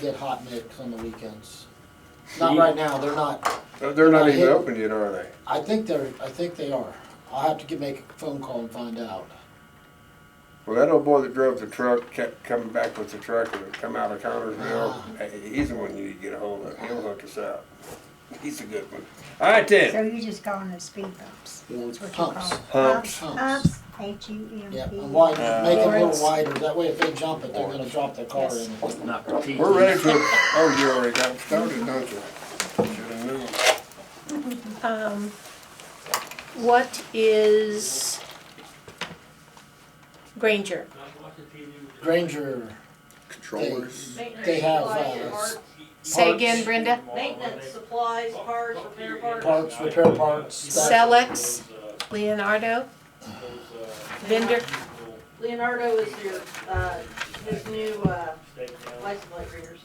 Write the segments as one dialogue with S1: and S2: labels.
S1: get hot mix on the weekends. Not right now, they're not,
S2: They're- They're not even
S1: Hit-
S2: open yet, are they?
S1: I think they're, I think they are. I'll have to get, make a phone call and find out.
S2: Well, that old boy that drove the truck kept coming back with the truck and it come out of Connersville. Hey, He's the one you need to get a hold of. He'll hook us up. He's a good one. All right
S3: So
S2: then.
S3: you're just calling those speed bumps?
S1: You know,
S3: That's what you call
S1: Humps,
S3: them.
S2: Humps.
S3: Humps, H U M P.
S1: yeah, and wide, make it a
S3: Lawrence.
S1: little wider, that way if they jump it, they're gonna drop their car in.
S4: Not repeat.
S2: We're ready to, oh, you already got started, don't you? Should've known.
S5: Um, what is Granger?
S1: Granger, they,
S2: Controllers.
S1: they have, uh,
S5: Say
S6: Supplies,
S5: again, Brenda.
S6: Maintenance supplies, parts, repair parts.
S1: parts, repair parts, stuff.
S5: Celex, Leonardo, Vendor.
S6: Leonardo is your, uh, his new, uh, license plate readers.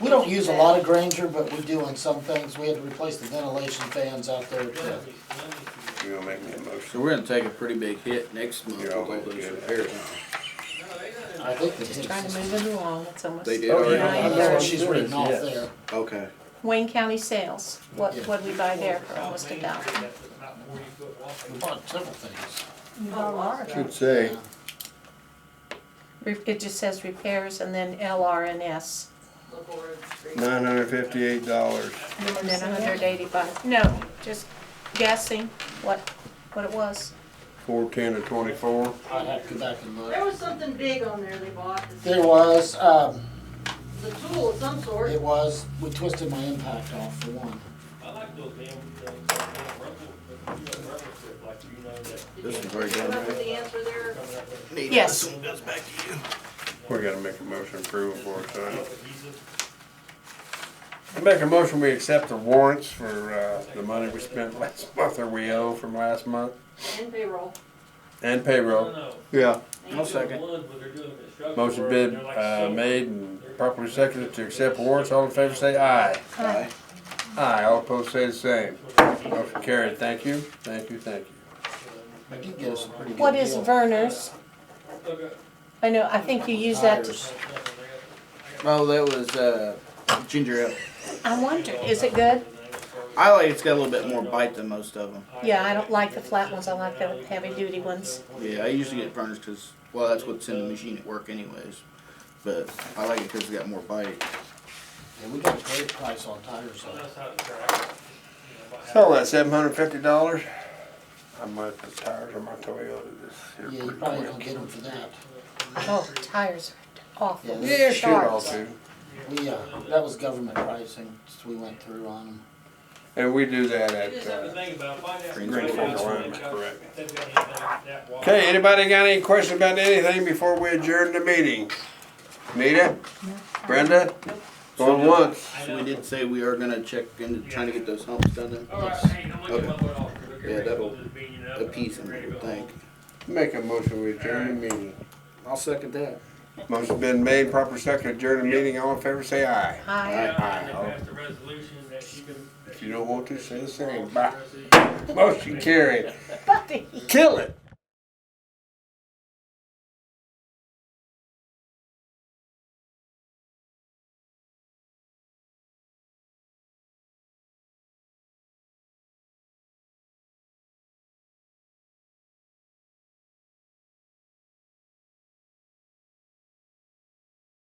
S1: We don't use a lot of Granger, but we do on some things. We had to replace the ventilation fans out there to
S2: You gonna make me a
S7: So
S2: motion?
S7: we're gonna take a pretty big hit next month with
S2: You're
S7: all
S2: always
S7: those
S2: good.
S7: repairs.
S1: I think they
S5: Just
S1: did.
S5: trying to move it along, it's almost.
S7: They did
S2: Oh,
S7: already?
S2: yeah.
S1: Yeah, That's what
S5: Nine
S1: she's
S5: thirty.
S1: reading off
S4: Yes.
S1: there.
S7: Okay.
S5: Wayne County sales, what,
S1: Yeah.
S5: what we buy there for almost a dollar.
S1: We bought several things.
S3: You got a lot of
S2: Should
S3: them.
S2: say,
S5: Re- It just says repairs and then LRNS,
S6: Local road street.
S2: nine hundred fifty-eight dollars.
S5: and then hundred eighty-five, no, just guessing what, what it was.
S2: Four ten to twenty-four.
S1: I'd have to go back and
S6: There
S1: look.
S6: was something big on there they bought. It's
S1: There was, um,
S6: The tool of some sort.
S1: it was, we twisted my impact off for one.
S8: I like those damn things, like that rubber, but you know, rubber strip, like you know, that
S6: Did
S7: This
S6: you-
S7: is very
S6: did you Come
S7: good.
S6: up with the answer there.
S8: coming up with
S5: Yes,
S2: We gotta make a motion approval for it, so.
S8: adhesive.
S2: I make a motion, we accept the warrants for, uh, the money we spent last month, or we owe from last month,
S6: And payroll.
S2: and
S8: I don't
S2: payroll.
S8: know.
S2: Yeah.
S6: And
S7: I'll
S8: They're doing
S7: second.
S8: wood, but they're doing construction
S2: Motion
S8: work,
S2: bid,
S8: and they're like
S2: uh,
S8: silver.
S2: made and properly seconded to accept warrants, all in favor say aye. Aye, all opposed say the same. Motion carried, thank you, thank you, thank you.
S1: I did get us a pretty good deal.
S5: what is Verner's?
S8: Okay.
S5: I know, I think you use that, to-
S1: Tires.
S7: Well, that was, uh, ginger ale.
S5: I wonder, is it good?
S7: I like, it's got a little bit more bite than most of them.
S5: Yeah, I don't like the flat ones, I like the heavy-duty ones.
S7: Yeah, I usually get furnished because, well, that's what's in the machine at work anyways. But I like it because it's got more bite.
S1: Yeah, we got a great price on tires,
S8: So
S1: so.
S8: that's how the track, you know,
S2: So that seven hundred fifty dollars? I might put tires on my Toyota this year.
S1: Yeah, you
S2: pretty
S1: probably
S2: quick.
S1: don't get them for that.
S5: Oh, tires are awful.
S1: Yeah,
S2: Yeah, shoot,
S5: sharp.
S2: I'll do.
S1: We, uh, that was government pricing, so we went through on them.
S2: And we do that
S8: You just
S2: at,
S8: have to
S2: uh,
S8: think about, it. find out.
S7: Green
S2: Green Fork
S7: Fork
S8: if
S2: Alignment,
S8: they've got-
S2: correct.
S8: if they've got anything that wide.
S2: Okay, anybody got any questions about anything before we adjourn the meeting? Nita? Brenda? Going once?
S7: So we did say we are gonna check into trying to get those humps done then.
S8: All right, hey, I'm gonna get my wood off.
S7: Yeah, that'll
S8: piece
S7: Appease them, I would think.
S2: Make a motion, we adjourn the meeting.
S7: I'll second that.
S2: Motion's been made, proper second, adjourn the meeting, all in favor, say aye.
S5: Hi.
S2: If you don't want to, say the same. Bye. Motion carried. Kill it.